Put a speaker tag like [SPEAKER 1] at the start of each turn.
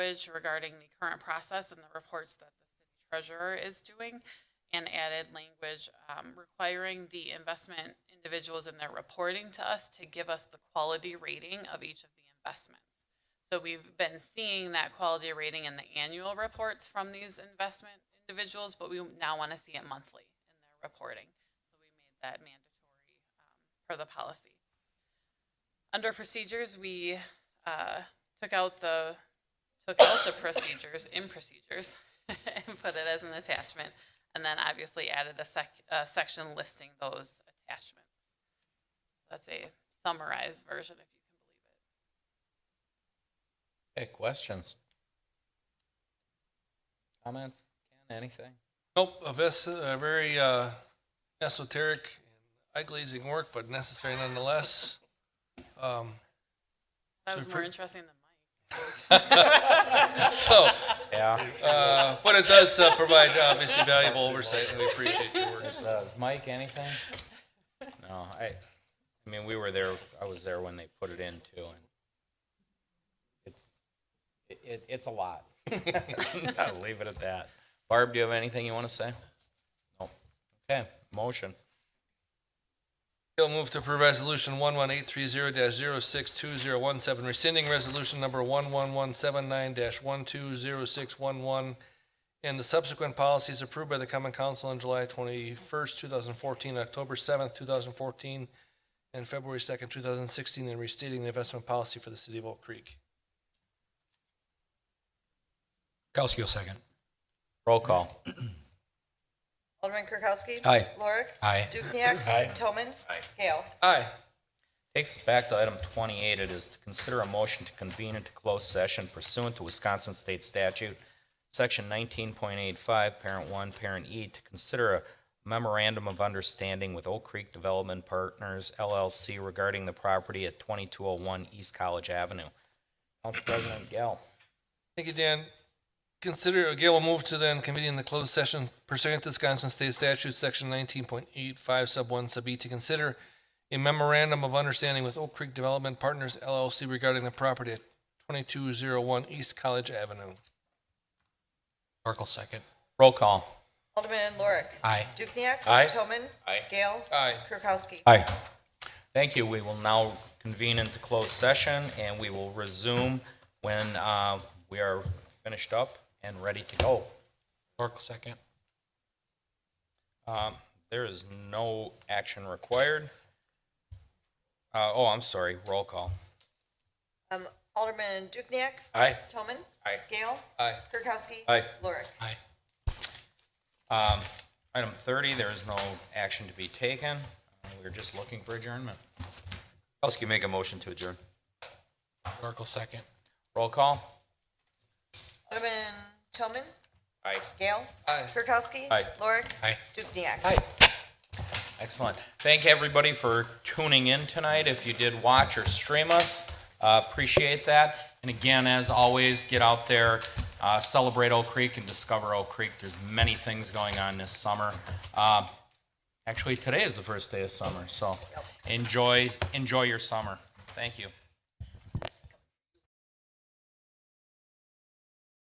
[SPEAKER 1] language regarding the current process and the reports that the city treasurer is doing, and added language um, requiring the investment individuals in their reporting to us to give us the quality rating of each of the investments. So we've been seeing that quality rating in the annual reports from these investment individuals, but we now want to see it monthly in their reporting. So we made that mandatory um, per the policy. Under procedures, we uh, took out the, took out the procedures in procedures and put it as an attachment. And then obviously added a sec, a section listing those attachments. That's a summarized version if you can believe it.
[SPEAKER 2] Okay, questions? Comments? Ken, anything?
[SPEAKER 3] Nope, a ves- a very uh, esoteric, eye glazing work, but necessary nonetheless. Um,
[SPEAKER 1] That
[SPEAKER 3] So
[SPEAKER 1] was more
[SPEAKER 3] pre-
[SPEAKER 1] interesting than mine.
[SPEAKER 3] so,
[SPEAKER 2] Yeah.
[SPEAKER 3] uh, but it does uh, provide obviously valuable oversight, and we appreciate your work.
[SPEAKER 2] Does Mike anything? No, I, I mean, we were there, I was there when they put it in too and it's, it- it, it's a lot. I'll leave it at that. Barb, do you have anything you want to say? No. Okay, motion.
[SPEAKER 3] I'll move to approve resolution one one eight three zero 62017 rescinding resolution number one one one seven nine one two zero six one one, and the subsequent policies approved by the common council on July twenty-first, two thousand fourteen, October seventh, two thousand fourteen, and February second, two thousand sixteen, and restating the investment policy for the city of Oak Creek.
[SPEAKER 4] Kowski will second.
[SPEAKER 2] Roll call.
[SPEAKER 5] Alderman Kirkowski.
[SPEAKER 4] Aye.
[SPEAKER 5] Lorik.
[SPEAKER 4] Aye.
[SPEAKER 5] Dukenyak. Toman. Gale.
[SPEAKER 3] Aye.
[SPEAKER 2] Takes us back to item 28. It is to consider a motion to convene into closed session pursuant to Wisconsin State Statute, Section 19.85, Parent 1, Parent E, to consider a memorandum of understanding with Oak Creek Development Partners LLC regarding the property at 2201 East College Avenue. Council President Gale.
[SPEAKER 3] Thank you, Dan. Consider, again, we'll move to then convening the closed session pursuant to Wisconsin State Statute, Section 19.85, Sub 1, Sub E, to consider a memorandum of understanding with Oak Creek Development Partners LLC regarding the property at 2201 East College Avenue.
[SPEAKER 4] Oracle second.
[SPEAKER 2] Roll call.
[SPEAKER 5] Alderman Lorik.
[SPEAKER 4] Aye.
[SPEAKER 5] Dukenyak.
[SPEAKER 2] Aye.
[SPEAKER 5] Toman.
[SPEAKER 2] Aye.
[SPEAKER 5] Gale.
[SPEAKER 3] Aye.
[SPEAKER 5] Kirkowski.
[SPEAKER 2] Aye. Thank you. We will now convene into closed session, and we will resume when uh, we are finished up and ready to go.
[SPEAKER 4] Oracle second.
[SPEAKER 2] Um, There is no action required. Uh, Oh, I'm sorry, roll call.
[SPEAKER 5] Um, Alderman Dukenyak.
[SPEAKER 2] Aye.
[SPEAKER 5] Toman.
[SPEAKER 2] Aye.
[SPEAKER 5] Gale.
[SPEAKER 3] Aye.
[SPEAKER 5] Kirkowski.
[SPEAKER 2] Aye.
[SPEAKER 5] Lorik.
[SPEAKER 4] Aye.
[SPEAKER 2] Item 30, there is no action to be taken. Uh, We're just looking for adjournment. Kowski make a motion to adjourn.
[SPEAKER 4] Oracle second.
[SPEAKER 2] Roll call.
[SPEAKER 5] Alderman Toman.
[SPEAKER 2] Aye.
[SPEAKER 5] Gale.
[SPEAKER 3] Aye.
[SPEAKER 5] Kirkowski.
[SPEAKER 2] Aye.
[SPEAKER 5] Lorik.
[SPEAKER 4] Aye.
[SPEAKER 5] Dukenyak.
[SPEAKER 2] Excellent. Thank everybody for tuning in tonight. If you did watch or stream us, uh, appreciate that. And again, as always, get out there, uh, celebrate Oak Creek and discover Oak Creek. There's many things going on this summer. Uh, Actually, today is the first day of summer, so enjoy, enjoy your summer. Thank you.